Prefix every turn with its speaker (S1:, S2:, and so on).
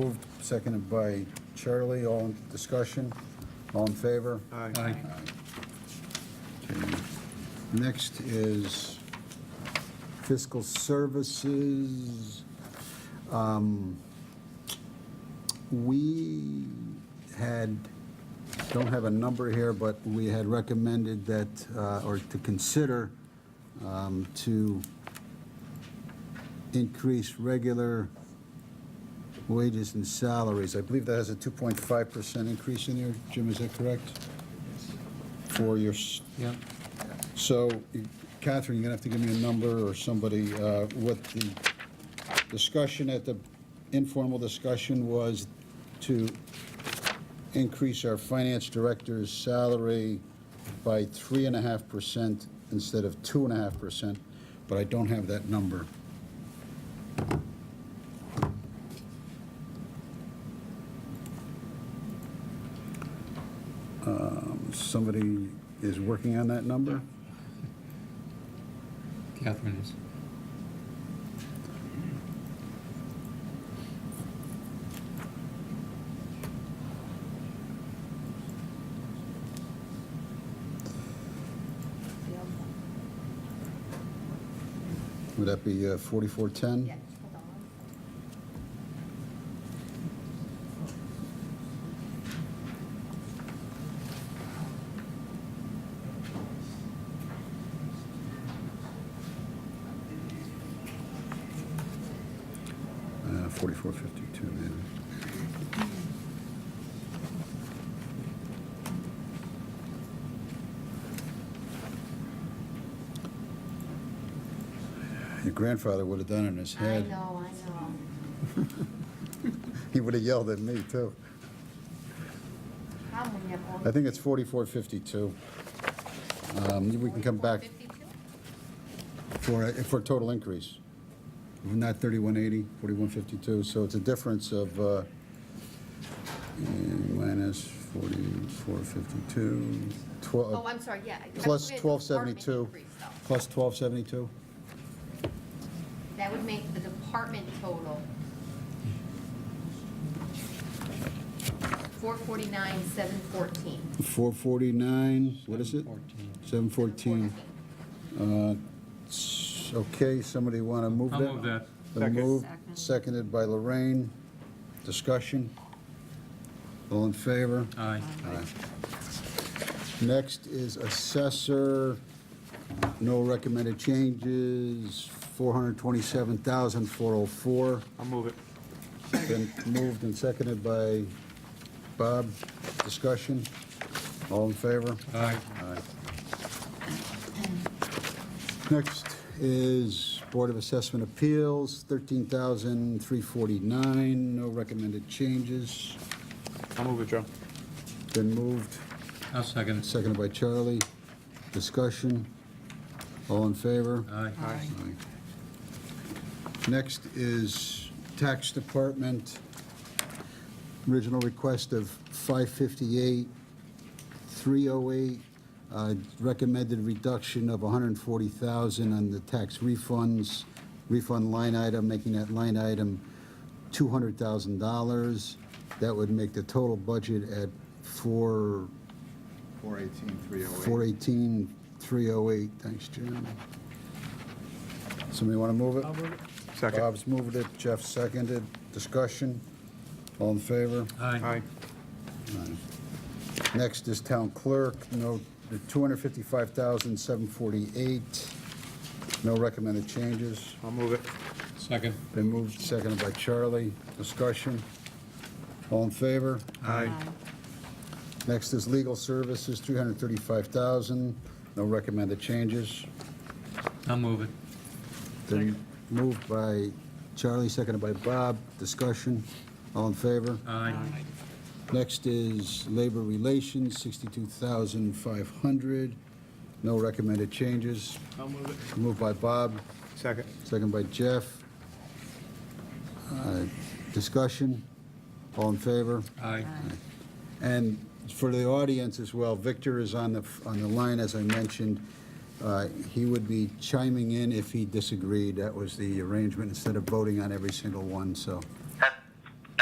S1: Moved, seconded by Charlie, all in discussion, all in favor?
S2: Aye.
S1: Okay. Next is fiscal services. Um, We had, don't have a number here, but we had recommended that, uh, or to consider um, to increase regular wages and salaries. I believe that has a 2.5% increase in there. Jim, is that correct? For your s-
S2: Yep.
S1: so, Catherine, you're gonna have to give me a number or somebody, uh, what the discussion at the informal discussion was to increase our finance director's salary by three and a half percent instead of two and a half percent, but I don't have that number. Um, Somebody is working on that number?
S2: Catherine is.
S1: Would that be uh, 4410?
S3: Yeah, hold on one second.
S1: Uh, 4452, man. Your grandfather would have done it in his
S3: I
S1: head.
S3: know, I know.
S1: He would have yelled at me, too.
S3: How many of all?
S1: I think it's 4452. Um, We can come back
S3: 44.52?
S1: for, a- for a total increase, not 3180, 4152, so it's a difference of uh, minus 4452,
S3: Oh,
S1: 12,
S3: I'm sorry, yeah. I-
S1: plus
S3: I forget the
S1: 1272,
S3: department increase, though.
S1: plus 1272?
S3: That would make the department total four forty-nine, seven fourteen.
S1: 449, what is it?
S2: 14.
S1: 714. Uh, s- Uh, Okay, somebody want to move that?
S4: I'll move that.
S1: Been moved,
S3: Second.
S1: seconded by Lorraine. Discussion? All in favor?
S4: Aye.
S1: Next is assessor, no recommended changes, 427,404.
S4: I'll move it.
S1: Been moved and seconded by Bob. Discussion? All in favor?
S4: Aye.
S1: Next is Board of Assessment Appeals, 13,349, no recommended changes.
S4: I'll move it, Joe.
S1: Been moved,
S2: I'll second it.
S1: seconded by Charlie. Discussion? All in favor?
S2: Aye.
S1: Next is Tax Department, original request of 558, 308, uh, recommended reduction of 140,000 on the tax refunds, refund line item, making that line item $200,000. That would make the total budget at 4, 418, 308, thanks, Jim. Somebody want to move it?
S4: Second.
S1: Bob's moved it, Jeff seconded, discussion, all in favor?
S4: Aye.
S2: Aye.
S1: Next is town clerk, no, the 255,748, no recommended changes.
S4: I'll move it.
S2: Second.
S1: Been moved, seconded by Charlie, discussion, all in favor?
S4: Aye.
S1: Next is legal services, 335,000, no recommended changes.
S2: I'll move it.
S1: Then moved by Charlie, seconded by Bob, discussion, all in favor?
S2: Aye.
S1: Next is labor relations, 62,500. No recommended changes.
S4: I'll move it.
S1: Moved by Bob,
S4: Second.
S1: second by Jeff. Uh, Discussion? All in favor?
S2: Aye.
S1: And for the audience as well, Victor is on the, on the line, as I mentioned. Uh, He would be chiming in if he disagreed. That was the arrangement, instead of voting on every single one, so